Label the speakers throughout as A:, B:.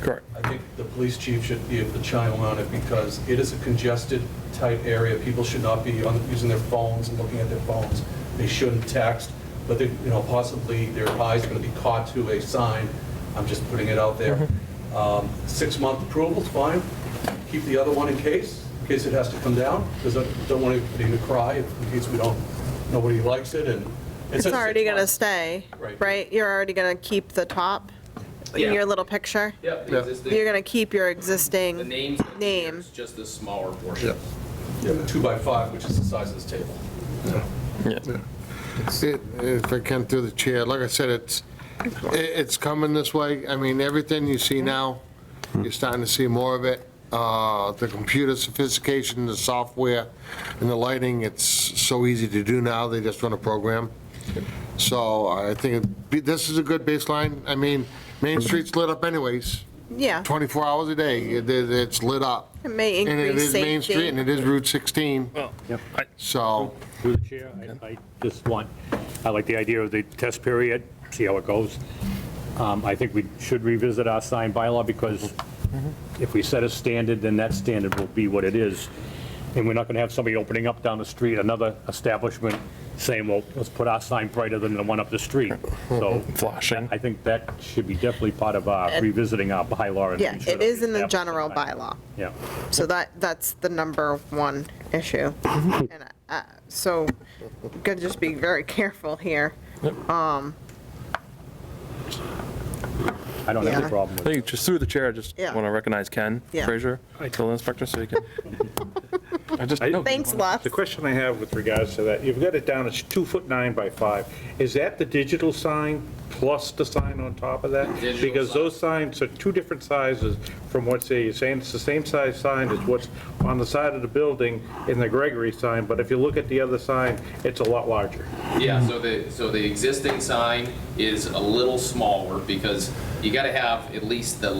A: Correct.
B: I think the police chief should be able to chime on it because it is a congested, tight area. People should not be on- using their phones and looking at their phones. They shouldn't text, but they, you know, possibly their eye's going to be caught to a sign. I'm just putting it out there. Um, Six-month approval's fine. Keep the other one in case, in case it has to come down, because I don't want anybody to cry in case we don't, nobody likes it and.
C: It's
B: at
C: already
B: six
C: gonna
B: months.
C: stay,
B: Right.
C: right? You're already gonna keep the top in
D: Yeah.
C: your little picture?
D: Yeah,
A: Yeah.
D: the existing.
C: You're gonna keep your
D: The
C: existing,
D: names. that
C: Name.
D: appears, Just the smaller
A: Yeah.
D: portion.
B: Two by five, which is the size of this table.
A: Yeah.
E: It- If I can through the chair, like I said, it's, it- it's coming this way. I mean, everything you see now, you're starting to see more of it. Uh, The computer sophistication, the software, and the lighting, it's so easy to do now, they just run a program. So I think it'd be- this is a good baseline. I mean, Main Street's lit up anyways,
C: yeah,
E: 24 hours a day, It- it- it's lit up.
C: it may
E: And it
C: increase
E: is Main Street, and
C: safety.
E: it is Route 16,
F: I-
E: so.
F: Through the chair, I- I just want, I like the idea of the test period, see how it goes. Um, I think we should revisit our sign bylaw because if we set a standard, then that standard will be what it is. And we're not going to have somebody opening up down the street, another establishment saying, well, let's put our sign brighter than the one up the street. So
A: Flashing.
F: I think that should be definitely part of our revisiting our bylaw. and
C: Yeah,
F: we should
C: it is in the
F: establish
C: general
F: that.
C: bylaw,
F: Yeah.
C: so that, that's the number one issue. And, uh, So, gotta just be very careful here.
F: I don't have
C: Yeah.
F: a problem
A: I
F: with it.
A: think just through the chair, I just
C: Yeah.
A: want to recognize Ken
C: Yeah.
A: Frazier, building inspector, so he can. I just, no,
C: Thanks, Lux.
G: The question I have with regards to that, you've got it down, it's two foot nine by five. Is that the digital sign plus the sign on top of that?
D: Digital
G: Because
D: sign.
G: those signs are two different sizes from what's, there. you're saying it's the same size sign as what's on the side of the building in the Gregory sign, but if you look at the other sign, it's a lot larger.
D: Yeah, so the, so the existing sign is a little smaller because you gotta have at least the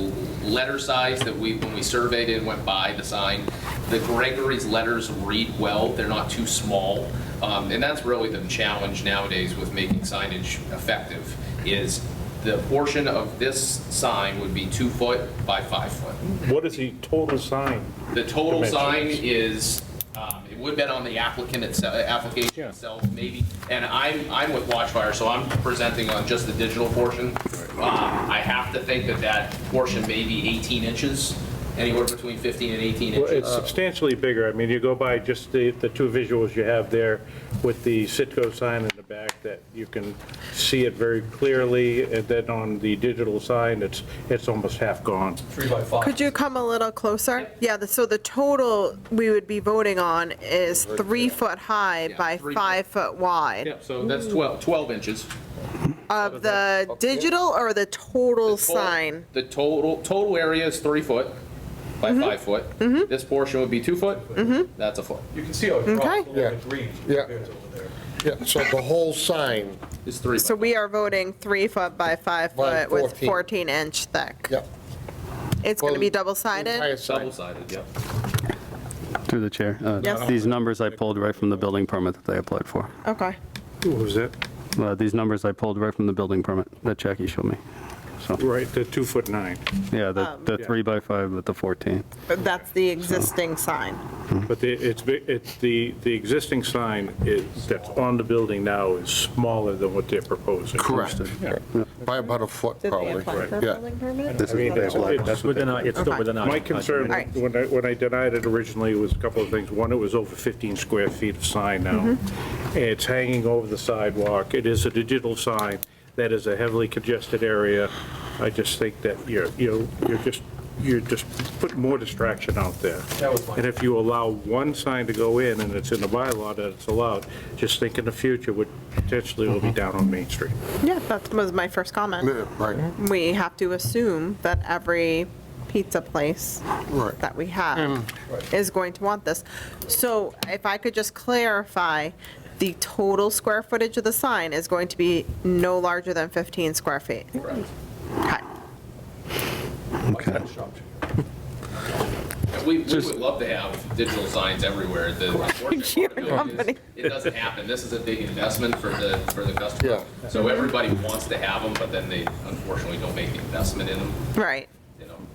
D: letter size that we, when we surveyed and went by the sign, the Gregory's letters read well, they're not too small. Um, and that's really the challenge nowadays with making signage effective, is the portion of this sign would be two foot by five foot.
G: What is the total sign?
D: The total
G: Dimensions.
D: sign is, um, it would have been on the applicant itself, application
G: Yeah.
D: itself, maybe. And I'm, I'm with Watchfire, so I'm presenting on just the digital portion. Um, I have to think that that portion may be 18 inches, anywhere between 15 and 18
G: Well, it's
B: Um,
D: inches.
G: substantially bigger. I mean, you go by just the, the two visuals you have there with the Citgo sign in the back that you can see it very clearly, and then on the digital sign, it's, it's almost half gone.
B: Three by five.
C: Could you come a little closer? Yeah, the- so the total we would be voting on is three foot high
D: Yeah,
C: by
D: three foot.
C: five foot wide.
D: Yep, so that's 12, 12 inches.
C: Of the digital or the total
D: Total-
C: sign? Mm-hmm.
D: The total, total area is three foot by five foot. This portion would be two foot. That's a foot.
B: You can see how it drops
C: Okay.
B: a little bit green
E: Yeah.
B: compared to over there.
E: Yeah, so the whole sign,
D: It's three.
C: So
D: by-
C: we are voting three foot by five
E: By
C: foot with
E: 14.
C: 14 inch thick.
E: yep.
C: It's going to
E: Well,
C: be double sided?
E: Entire sign.
D: Double-sided, yep.
H: Through the chair. uh,
C: Yes.
H: These numbers I pulled right from the building permit that they applied for.
C: Okay.
G: What was that?
H: Uh, These numbers I pulled right from the building permit that Jackie showed me. So,
G: Right, the two foot nine.
H: yeah, the, the
G: Yeah.
H: three by five with the 14.
C: But that's the existing sign.
G: But the, it's, bi- it's, the, the existing sign is, that's on the building now is smaller than what they're proposing.
E: Correct. By about a foot,
C: Did they
E: probably.
C: apply for a
E: Yeah.
C: building permit?
H: This
G: I mean, it's-
H: is what they
G: it's-
H: applied.
F: It's within our, it's still
C: Okay.
F: within our.
G: My concern,
C: Alright.
G: when I, when I denied it originally, was a couple of things. One, it was over 15 square feet of sign now. It's hanging over the sidewalk. It is a digital sign. That is a heavily congested area. I just think that you're, you're you're just, you're just putting more distraction out there.
B: That was my-
G: And if you allow one sign to go in, and it's in the bylaw that it's allowed, just think in the future, would potentially will be down on Main Street.
C: Yeah, that was my first comment.
E: Yeah, Right,
C: We have to assume that every pizza place
E: right.
C: that we have is going to want this. So if I could just clarify, the total square footage of the sign is going to be no larger than 15 square feet.
D: Correct.
C: Okay.
B: Okay.
D: We, we would love to have digital signs everywhere. The unfortunate
C: Your
D: part of it
C: company.
D: is, it doesn't happen. This is a big investment for the, for the customer.
E: Yeah.
D: So everybody wants to have them, but then they unfortunately don't make the investment in them.
C: Right.